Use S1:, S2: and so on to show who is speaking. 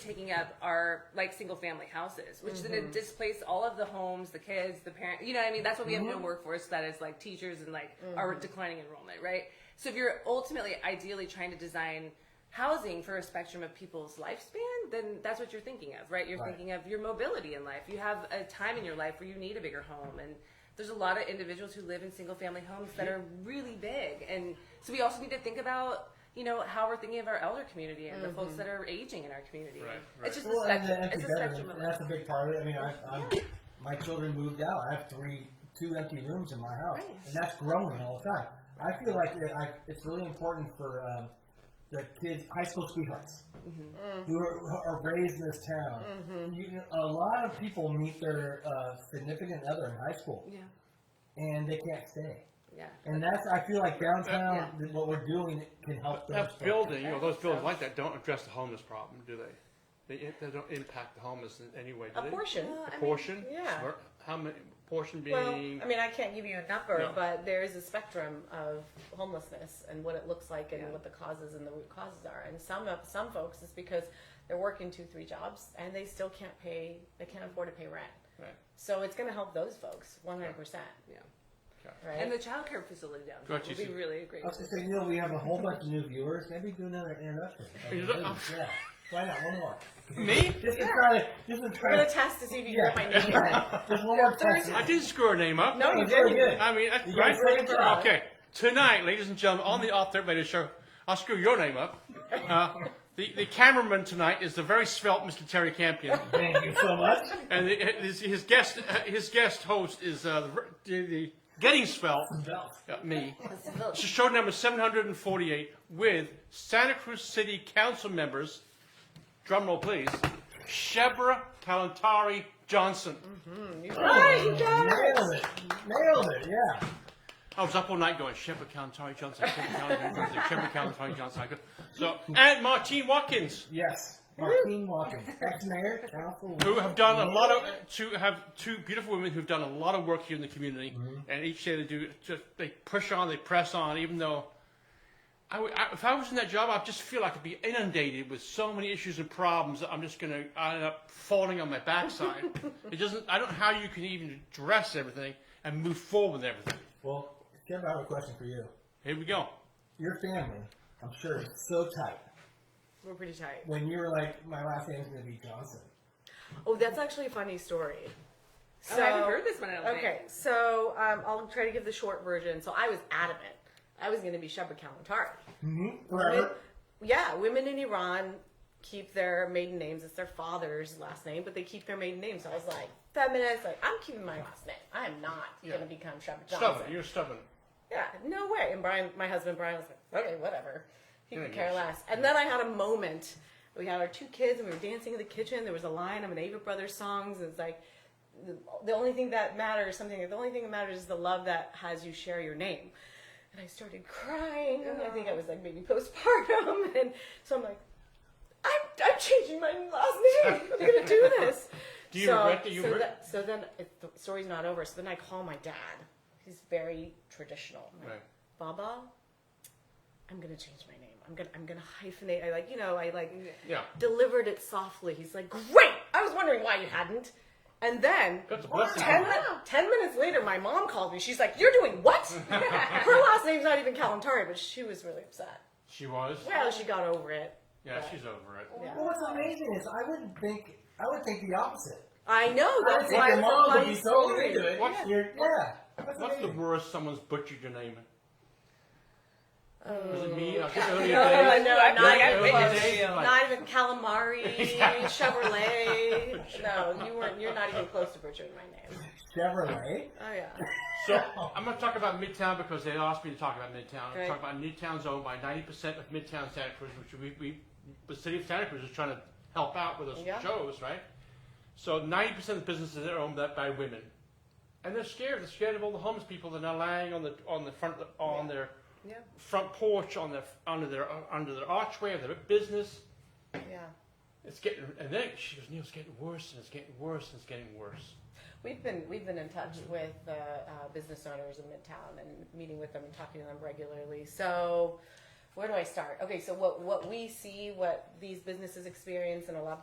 S1: taking up are like single family houses, which then it displaced all of the homes, the kids, the parents. You know what I mean? That's why we have no workforce that is like teachers and like our declining enrollment, right? So if you're ultimately ideally trying to design housing for a spectrum of people's lifespan, then that's what you're thinking of, right? You're
S2: Right.
S1: thinking of your mobility in life. You have a time in your life where you need a bigger home and there's a lot of individuals who live in single family homes that are really big and so we also need to think about you know how we're thinking of our elder community and the folks that are aging in our community
S3: Right,
S1: it's just
S2: Well,
S1: a
S2: and
S1: spectrum
S2: that's,
S1: it's a
S2: a better-
S1: spectrum of
S2: and that's a big part of it. I mean, I, I'm, my children moved out. I have three, two empty rooms in my house,
S1: Right.
S2: and that's growing all the time. I feel like it, I, it's really important for um, the kids, high school sweethearts,
S1: Mm-hmm.
S2: who, are, who are raised in this town. You, a lot of people meet their uh, significant other in high school,
S1: yeah
S2: and they can't stay.
S1: yeah
S2: And that's I feel like downtown, th- what we're doing can help those
S3: That
S2: folks.
S3: building, you know, those buildings like that don't address the homeless problem, do they? They, they don't impact the homeless in any way, do
S4: A
S3: they?
S4: portion.
S1: Well, I mean,
S3: Portion?
S4: yeah.
S3: Where- How many, portion being?
S4: Well, I mean, I can't give you a number,
S3: No.
S4: but there is a spectrum of homelessness and what it looks like and
S1: Yeah.
S4: what the causes and the root causes are. And some of some folks is because they're working two, three jobs and they still can't pay, they can't afford to pay rent.
S3: Right.
S4: So it's going to help those folks 100%,
S1: yeah
S4: right?
S1: and the childcare facility downtown
S3: Gotcha,
S1: would be
S3: so-
S1: really a great
S2: I was gonna say, you know, we have a whole bunch of new viewers. Maybe do another introduction.
S3: You don't-
S2: Yeah, why not? One more.
S3: Me?
S2: This is try to. This is
S4: I'm
S2: try
S4: going
S2: to.
S4: to test to see if you
S2: Yeah.
S4: can get my name right.
S2: Just one more test.
S3: I didn't screw her name up.
S4: No, you
S2: It's very
S4: didn't.
S2: good.
S3: I mean, that's
S2: You
S3: right.
S2: guys ready for it?
S3: Okay, tonight, ladies and gentlemen, on the Off Third Radio Show, I'll screw your name up. Uh, the, the cameraman tonight is the very svelte Mr. Terry Campion,
S2: Thank you so much.
S3: and the, his, his guest uh, his guest host is uh, the, ver- the, the getting svelte uh, me. It's show number 748 with Santa Cruz City Council members, drumroll please, Shebra Kalantari Johnson.
S4: Right, you guys.
S2: Nailed it. Nailed it. Yeah.
S3: I was up all night going, Shepard Kalantari Johnson, Shepard Kalantari Johnson, Shepard Kalantari Johnson. I go- So, and Martine Watkins,
S2: Yes. Martine Watkins, ex-mayor, council.
S3: who have done a lot of, to have two beautiful women who've done a lot of work here in the community. And each day they do, just, they push on, they press on, even though I would- I- if I was in that job, I just feel like I'd be inundated with so many issues and problems that I'm just going to end up falling on my backside. it doesn't, I don't know how you can even address everything and move forward with everything.
S2: Well, Kim, I have a question for you.
S3: Here we go.
S2: Your family, I'm sure, is so tight.
S4: We're pretty tight.
S2: When you were like, my last name's gonna be Johnson.
S4: Oh, that's actually a funny story.
S1: oh, i haven't heard this one i don't
S4: Okay, so um, I'll try to give the short version. So I was adamant. I was going to be Shepard Kalantari.
S2: Mm-hmm. Forever.
S4: Yeah, women in Iran keep their maiden names. It's their father's last name, but they keep their maiden name. So I was like, feminist, like, I'm keeping my last name. I am not going to become Shepard Johnson.
S3: Stubborn, you're stubborn.
S4: Yeah, no way. And Brian, my husband Brian, was like, okay, whatever. He
S3: Yeah,
S4: could care
S3: yes.
S4: less. And then I had a moment. We had our two kids, and we were dancing in the kitchen. There was a line of an Ava Brothers songs. and It's like the, the only thing that matters, something. The only thing that matters is the love that has you share your name. And I started crying. and I think I was like maybe postpartum, and so I'm like, I'm, I'm changing my last name. I'm gonna do this.
S3: Do you
S4: so,
S3: regret that you
S4: so,
S3: were-
S4: that- so then it, the story's not over. So then I call my dad. He's very traditional. I'm like,
S3: Right.
S4: Baba, I'm gonna change my name. I'm gonna I'm gonna hyphenate. I like you know I like
S3: Yeah.
S4: delivered it softly. He's like, great. I was wondering why you hadn't. And then
S3: That's a blessing.
S4: ten, min- ten minutes later, my mom called me. She's like, "You're doing what?" Her last name's not even Kalantari, but she was really upset.
S3: She was.
S4: Well, she got over it.
S3: Yeah, she's over it.
S2: Well, what's amazing is I wouldn't think. I would think the opposite.
S4: I know
S2: I would
S4: that's
S2: think
S4: why
S2: your
S4: it's a
S2: mom would
S4: funny
S2: be so
S4: story.
S2: into it.
S3: What's-
S2: You're, yeah. That's
S3: What's the
S2: amazing.
S3: worst someone's butchered your name? was it me? Oh, I think
S4: No,
S3: earlier days.
S4: no,
S1: Yeah,
S4: not,
S3: yeah,
S4: even
S3: yeah,
S4: close.
S3: yeah.
S4: not even calamari, Chevrolet. No, you weren't. You're not even close to butchering my name.
S2: Chevrolet.
S4: Oh yeah.
S3: So I'm going to talk about Midtown because they asked me to talk about Midtown.
S4: Great.
S3: I'm talking about Midtown's owned by 90% of Midtown Santa Cruz, which we, we, the city of Santa Cruz is trying to help out with those
S4: Yeah.
S3: shows, right? So 90% of the businesses are owned by- by women, and they're scared. They're scared of all the homeless people that are lying on the on the front on their
S1: Yeah.
S3: front porch, on their under their under their archway of their business.
S4: Yeah.
S3: It's getting, and then she goes, Neil, it's getting worse, and it's getting worse, and it's getting worse.
S4: We've been we've been in touch with uh, uh, business owners in Midtown and meeting with them and talking to them regularly. So, where do I start? Okay, so what what we see, what these businesses experience, and a lot of